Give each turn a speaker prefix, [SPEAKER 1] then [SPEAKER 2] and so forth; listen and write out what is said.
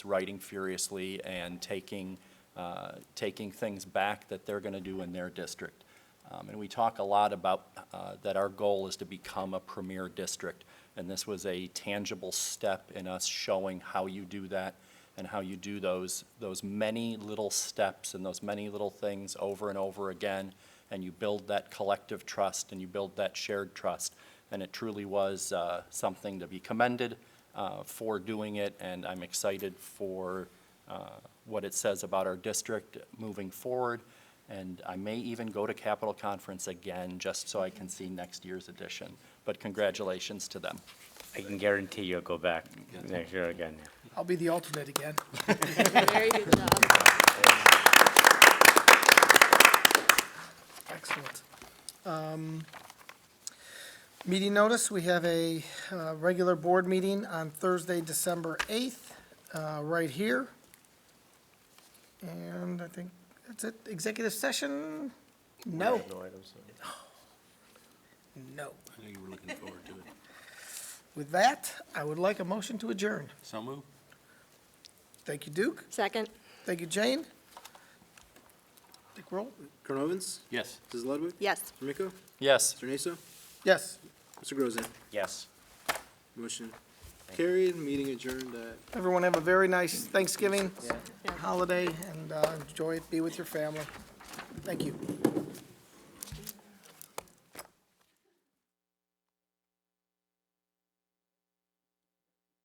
[SPEAKER 1] writing furiously and taking, uh, taking things back that they're going to do in their district. Um, And we talk a lot about uh, that our goal is to become a premier district, and this was a tangible step in us showing how you do that and how you do those, those many little steps and those many little things over and over again, and you build that collective trust and you build that shared trust. And it truly was uh, something to be commended uh, for doing it, and I'm excited for uh, what it says about our district moving forward. And I may even go to Capitol Conference again, just so I can see next year's edition. But congratulations to them.
[SPEAKER 2] I can guarantee you'll go back next year again.
[SPEAKER 3] I'll be the alternate again.
[SPEAKER 4] Very good job.
[SPEAKER 3] Excellent. Um, Meeting notice, we have a uh, regular board meeting on Thursday, December 8th, uh, right here. And I think that's it. Executive session? No, no.
[SPEAKER 5] I know you were looking forward to it.
[SPEAKER 3] With that, I would like a motion to adjourn.
[SPEAKER 5] So moved.
[SPEAKER 3] Thank you, Duke.
[SPEAKER 4] Second?
[SPEAKER 3] Thank you, Jane. Dick roll?
[SPEAKER 6] Colonel Evans?
[SPEAKER 5] Yes.
[SPEAKER 6] Mrs. Ludwig?
[SPEAKER 4] Yes.
[SPEAKER 6] Mr. Miko?
[SPEAKER 1] Yes?
[SPEAKER 6] Mr. Naso?
[SPEAKER 3] Yes.
[SPEAKER 6] Mr. Grozen?
[SPEAKER 2] Yes.
[SPEAKER 6] Motion carried, meeting adjourned at
[SPEAKER 3] Everyone have a very nice Thanksgiving holiday and uh, enjoy it, be with your family. Thank you.